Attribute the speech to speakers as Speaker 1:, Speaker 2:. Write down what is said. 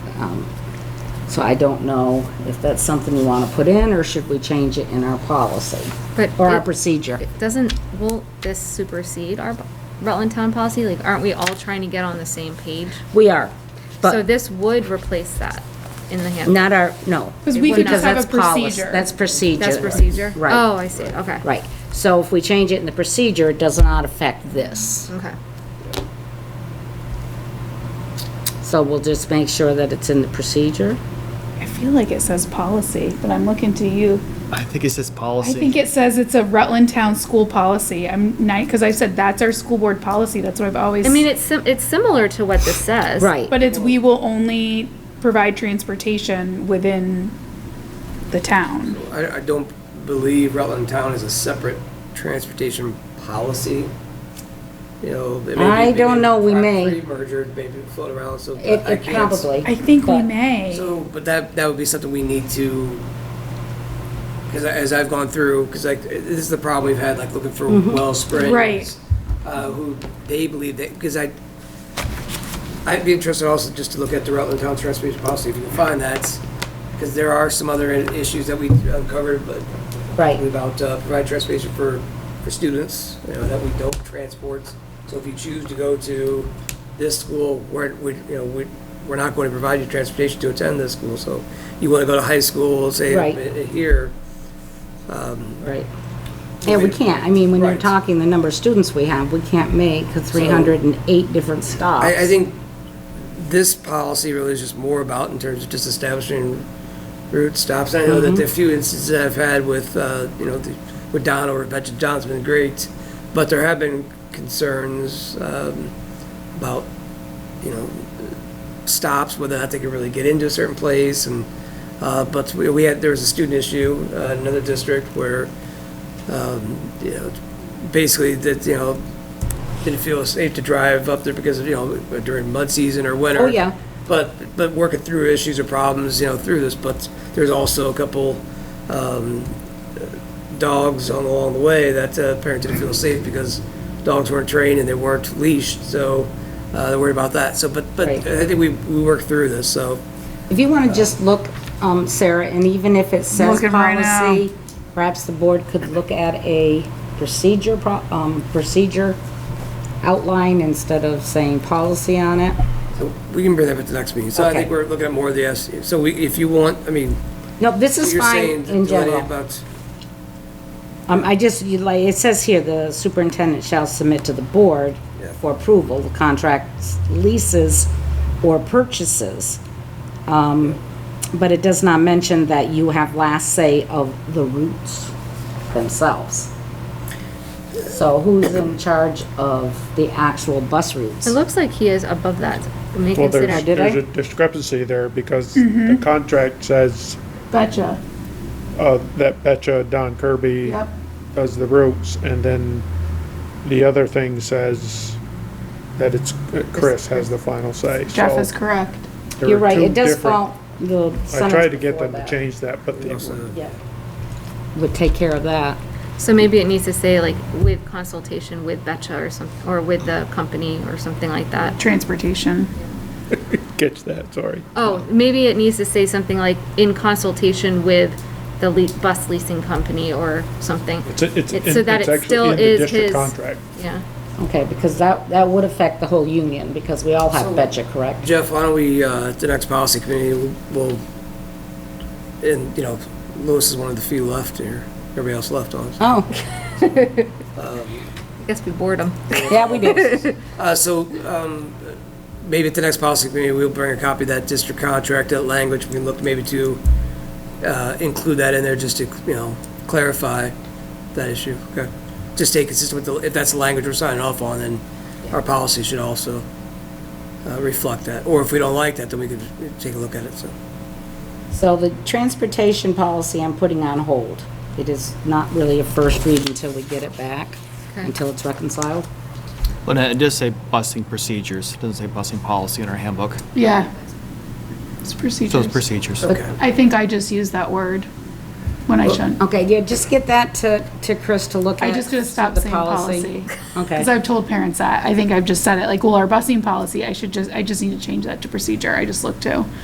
Speaker 1: Um, So I don't know if that's something you want to put in, or should we change it in our policy?
Speaker 2: But
Speaker 1: Or our
Speaker 2: it-
Speaker 1: procedure?
Speaker 2: It Doesn't, will this supersede our Rutland Town policy? Like, aren't we all trying to get on the same page?
Speaker 1: We are,
Speaker 2: So
Speaker 1: but
Speaker 2: this would replace that in the handbook.
Speaker 1: not our, no.
Speaker 3: 'Cause we could just have
Speaker 1: that's
Speaker 3: a
Speaker 1: policy-
Speaker 3: procedure.
Speaker 1: That's procedure.
Speaker 2: That's procedure?
Speaker 1: Right.
Speaker 2: Oh, I see, okay.
Speaker 1: Right. So if we change it in the procedure, it does not affect this.
Speaker 2: Okay.
Speaker 1: So we'll just make sure that it's in the procedure.
Speaker 3: I feel like it says policy, but I'm looking to you.
Speaker 4: I think it says
Speaker 3: I
Speaker 4: policy.
Speaker 3: think it says it's a Rutland Town School Policy. I'm night, because I said that's our school board policy. That's what I've always.
Speaker 2: I mean, it's, sim- it's similar to what this says.
Speaker 1: Right.
Speaker 3: But it's, we will only provide transportation within the town.
Speaker 5: I, I don't believe Rutland Town is a separate transportation policy. You know, it may be-
Speaker 1: I don't
Speaker 5: maybe
Speaker 1: know, we may.
Speaker 5: property Mergered, maybe float around, so.
Speaker 1: It,
Speaker 5: I
Speaker 1: it
Speaker 5: can't-
Speaker 1: probably.
Speaker 3: I think we
Speaker 1: but-
Speaker 3: may.
Speaker 5: So, but that, that would be something we need to, because as I've gone through, because like, this is the problem we've had, like, looking for
Speaker 1: Mm-hmm.
Speaker 5: Wellspring.
Speaker 3: Right.
Speaker 5: Uh, who they believe that, because I, I'd be interested also just to look at the Rutland Town Transportation Policy, if you can find that, because there are some other issues that we uncovered, but
Speaker 1: Right.
Speaker 5: about uh, provide transportation for, for students, you know, that we don't transport. So if you choose to go to this school, we're, we, you know, we, we're not going to provide you transportation to attend this school. So you want to go to high school, say,
Speaker 1: Right.
Speaker 5: uh, here,
Speaker 1: Right. Yeah, we can't, I mean, when you're
Speaker 5: Right.
Speaker 1: talking the number of students we have, we can't make three hundred and eight different stops.
Speaker 5: I, I think this policy really is just more about in terms of just establishing route stops. I know that the few instances that I've had with, uh, you know, the- with Don or Betcha John's been great, but there have been concerns, um, about, you know, stops, whether or not they could really get into a certain place and, uh, but we, we had, there was a student issue, uh, in another district where, um, you know, basically that, you know, didn't feel safe to drive up there because, you know, during mud season or winter.
Speaker 1: Oh, yeah.
Speaker 5: But, but working through issues or problems, you know, through this, but there's also a couple, um, dogs on, along the way that uh, parents didn't feel safe because dogs weren't trained and they weren't leashed, so, uh, they're worried about that. So, but, but
Speaker 1: Right.
Speaker 5: I think we, we worked through this, so.
Speaker 1: If you want to just look, um, Sarah, and even if it says
Speaker 3: Looking right now.
Speaker 1: policy, perhaps the board could look at a procedure, pro- um, procedure outline instead of saying policy on it.
Speaker 5: So We can bring that up at the next meeting. So I
Speaker 1: Okay.
Speaker 5: think we're looking at more of the, S- so we, if you want, I mean,
Speaker 1: No, this is
Speaker 5: you're saying
Speaker 1: fine in
Speaker 5: delineate
Speaker 1: general.
Speaker 5: about,
Speaker 1: Um, I just, you like, it says here, the superintendent shall submit to the board
Speaker 5: Yeah.
Speaker 1: for approval, the contracts, leases, or purchases. Um, but it does not mention that you have last say of the routes themselves. So who's in charge of the actual bus routes?
Speaker 2: It looks like he is above that. May
Speaker 6: Well,
Speaker 2: consider-
Speaker 6: there's,
Speaker 1: did
Speaker 6: there's
Speaker 1: I?
Speaker 6: a discrepancy there because the contract says
Speaker 3: Betcha.
Speaker 6: uh, that Betcha, Don Kirby
Speaker 3: Yep.
Speaker 6: does the routes, and then the other thing says that it's, uh, Chris has the final say.
Speaker 3: Jeff
Speaker 6: So
Speaker 3: is correct.
Speaker 6: there
Speaker 1: You're
Speaker 6: are
Speaker 1: right,
Speaker 6: two
Speaker 1: it does
Speaker 6: different-
Speaker 1: fall, the
Speaker 6: I
Speaker 1: sentence
Speaker 6: tried to get
Speaker 1: before
Speaker 6: them to
Speaker 1: that.
Speaker 6: change that, but they
Speaker 5: also-
Speaker 1: Yeah. Would take care of that.
Speaker 2: So maybe it needs to say like with consultation with Betcha or some, or with the company or something like that.
Speaker 3: Transportation.
Speaker 6: catch that, sorry.
Speaker 2: Oh, maybe it needs to say something like in consultation with the le- bus leasing company or something.
Speaker 6: It's, it's, in-
Speaker 2: It's so that
Speaker 6: it's
Speaker 2: it still
Speaker 6: actually in the
Speaker 2: is his.
Speaker 6: district contract.
Speaker 2: Yeah.
Speaker 1: Okay, because that, that would affect the whole union, because we all have
Speaker 5: So-
Speaker 1: betcha, correct?
Speaker 5: Jeff, why don't we, uh, at the next policy committee, we'll- we'll, and, you know, Lewis is one of the few left here. Everybody else left on.
Speaker 1: Oh,
Speaker 2: I guess we bored him.
Speaker 1: yeah, we do.
Speaker 5: Uh, so, um, maybe at the next policy committee, we'll bring a copy of that district contract, that language, we can look maybe to, uh, include that in there just to, you know, clarify that issue, okay? Just stay consistent with the, if that's the language we're signing off on, then our policy should also, uh, reflect that, or if we don't like that, then we could take a look at it, so.
Speaker 1: So the transportation policy I'm putting on hold. It is not really a first read until we get it back,
Speaker 2: Okay.
Speaker 1: until it's reconciled.
Speaker 4: But it does say busing procedures. It doesn't say busing policy in our handbook.
Speaker 3: Yeah. It's
Speaker 4: So
Speaker 3: procedures.
Speaker 4: it's procedures.
Speaker 3: I think I just used that word when I shouldn't.
Speaker 1: Okay, yeah, just get that to, to Chris to look at.
Speaker 3: I just gonna stop
Speaker 1: the
Speaker 3: saying policy.
Speaker 1: Okay,
Speaker 3: Because I've told parents that. I think I've just said it, like, well, our busing policy, I should just, I just need to change that to procedure. I just looked to.